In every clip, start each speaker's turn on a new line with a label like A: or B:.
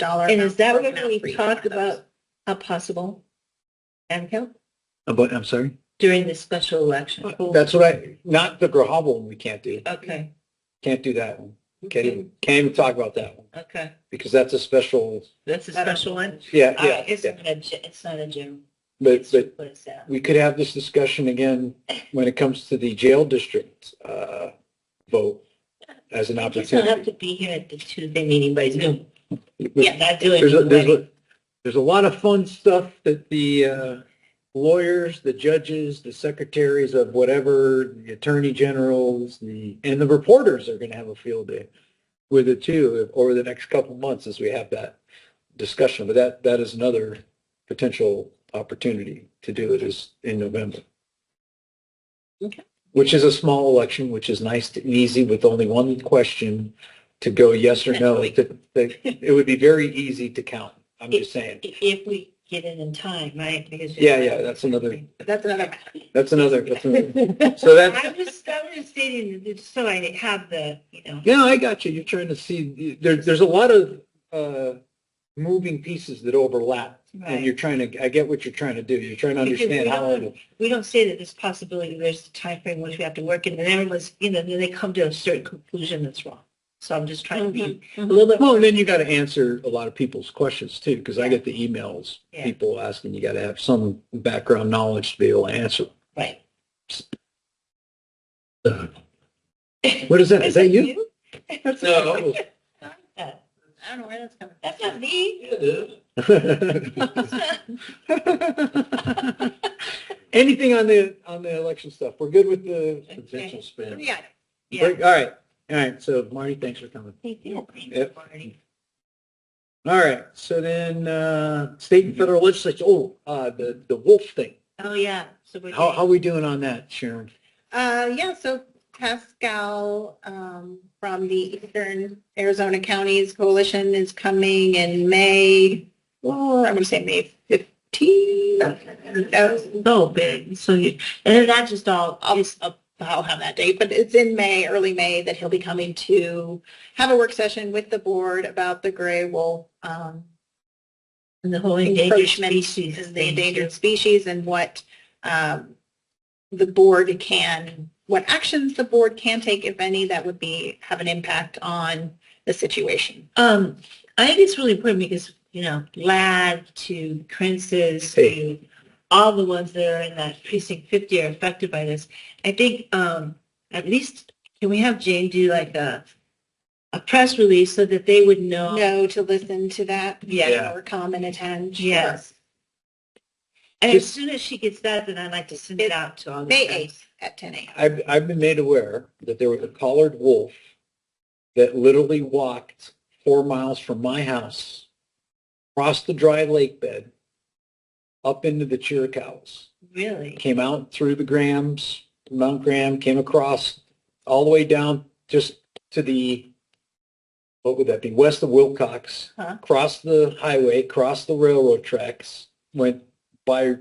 A: dollar.
B: And is
A: amount
B: that
A: broken
B: when
A: out
B: we
A: for each
B: talked
A: one of those.
B: about a possible ad count
C: But, I'm sorry?
B: during the special election?
C: That's what I, not the Grahavel one we can't do.
B: Okay.
C: Can't do that one. Can't even, can't even talk about that one
B: Okay,
C: because that's a special,
B: that's a special one.
C: yeah,
B: All
C: yeah.
B: right, It's
C: yeah.
B: not a, ge- it's not a general.
C: But,
B: It's
C: but
B: just what it's at.
C: we could have this discussion again when it comes to the jail district uh, vote as an
B: You just don't have
C: opportunity.
B: to be here at the Tuesday meeting by Zoom. Yeah,
C: There's
B: not doing.
C: a, there's
B: wedding.
C: a, there's a lot of fun stuff that the uh, lawyers, the judges, the secretaries of whatever, the attorney generals, the, and the reporters are going to have a field day with it too over the next couple of months as we have that discussion. But that, that is another potential opportunity to do it is in November.
B: Okay.
C: Which is a small election, which is nice and easy with only one question to go yes or no.
B: That's
C: To- to- It would be very easy to count. I'm just saying.
B: If, if we get it in time, right? Because-
C: Yeah, yeah, that's another-
B: That's another.
C: That's another, that's another. So that's,
B: I was, I was stating, that so I have the, you know,
C: Yeah, I got you. You're trying to see, there, there's a lot of, uh, moving pieces that overlap.
B: Right.
C: And you're trying to, I get what you're trying to do. You're trying to
B: Because
C: understand
B: we
C: how,
B: don't-
C: it-
B: we don't say that there's possibility, there's the timeframe which we have to work in, and everyone's, you know, then they come to a certain conclusion that's wrong. So I'm just trying to be a little bit.
C: well, and then you got to answer a lot of people's questions too, because I get the emails,
B: Yeah.
C: people asking, you got to have some background knowledge to be able to answer.
B: Right. Mm-hmm.
C: What is that? Is that you?
B: No. I don't know where that's coming. That's not me.
C: Anything on the, on the election stuff? We're good with the.
B: Potential
C: spin.
B: Yeah.
C: Great.
B: Yeah.
C: All right, all right. So Marty, thanks for coming.
B: Thank you.
C: Yep. All right, so then, uh, state and federal legislature, oh, uh, the, the wolf thing.
B: Oh, yeah. So we're.
C: How, how we doing on that, Sharon?
A: Uh, yeah, so Pascal, um, from the Eastern Arizona Counties Coalition is coming in May. Well, Oh, I'm gonna say May fifteen. Uh,
B: So big. So you, and not just all,
A: I'll- I'll I'll have that date, but it's in May, early May, that he'll be coming to have a work session with the board about the gray wolf, um,
B: the whole endangered
A: encroachment
B: species.
A: is the
B: thing.
A: endangered species and what um, the board can, what actions the board can take, if any, that would be, have an impact on the situation.
B: Um, I think it's really important because, you know, LAD to Prince's
C: Hey.
B: to all the ones that are in that precinct 50 are affected by this. I think um, at least can we have Jane do like a a press release so that they would know?
A: No, to listen to that.
B: Yeah.
C: Yeah.
A: Or come and attend.
B: Yes. And as soon as she gets that, then I'd like to send it
A: It's
B: out to all the
A: May
B: friends.
A: 8th at 10 a.m.
C: I've, I've been made aware that there was a collared wolf that literally walked four miles from my house, crossed the dry lake bed, up into the Chiricahuas.
B: Really?
C: came out through the Grams, Mount Graham, came across all the way down just to the, what would that be, west of Wilcox,
B: Huh.
C: crossed the highway, crossed the railroad tracks, went by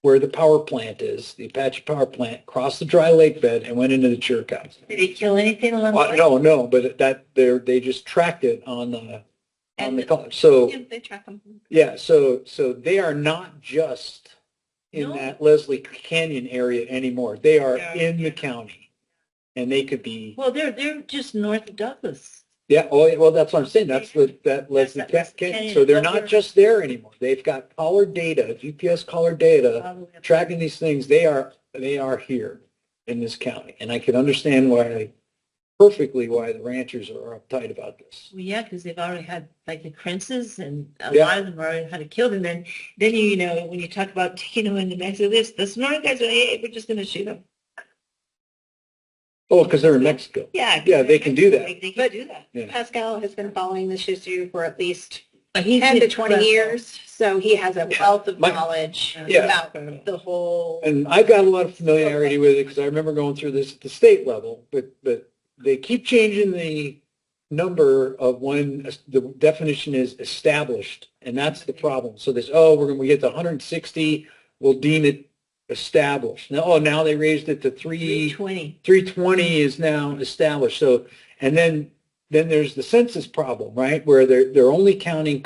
C: where the power plant is, the Apache power plant, crossed the dry lake bed and went into the Chiricahuas.
B: Did it kill anything along the
C: Well,
B: way?
C: no, no, but that, they they just tracked it on the, on the,
A: And-
C: col- so.
A: Yeah, They track them.
C: Yeah, so, so they are not just in
B: No.
C: that Leslie Canyon area anymore. They are
B: Yeah.
C: in the county. And they could be,
B: Well, they're, they're just north of Douglas.
C: yeah, oh, yeah, well, that's what I'm saying. That's the, that Leslie
B: that Leslie
C: Canyon.
B: Canyon.
C: So they're
B: Those
C: not
B: are-
C: just there anymore. They've got collar data, GPS collar data,
B: all the way up-
C: tracking these things. They are, they are here in this county. And I can understand why, perfectly why the ranchers are uptight about this.
B: Well, yeah, because they've already had like the princes and a
C: Yeah.
B: lot of them already had it killed. And then, then you, you know, when you talk about taking them into Mexico, this, the smart guys are, hey, we're just going to shoot them.
C: Oh, because they're in Mexico.
B: Yeah. 'cause
C: Yeah,
B: they're
C: they can do
B: Mexican,
C: that.
B: They can
A: But-
B: do that.
C: Yeah.
A: Pascal has been following this issue for at least
B: But he's
A: 10 to
B: been
A: 20
B: crushed.
A: years, so he has a wealth of
C: My-
A: knowledge
B: Yeah.
A: about the whole.
C: And I've got a lot of familiarity with it because I remember going through this at the state level, but, but they keep changing the number of when es- the definition is established, and that's the problem. So this, oh, we're going to get to 160, we'll deem it established. Now, oh, now they raised it to three,
B: 20.
C: 320 is now established. So, and then, then there's the census problem, right? Where they're, they're only counting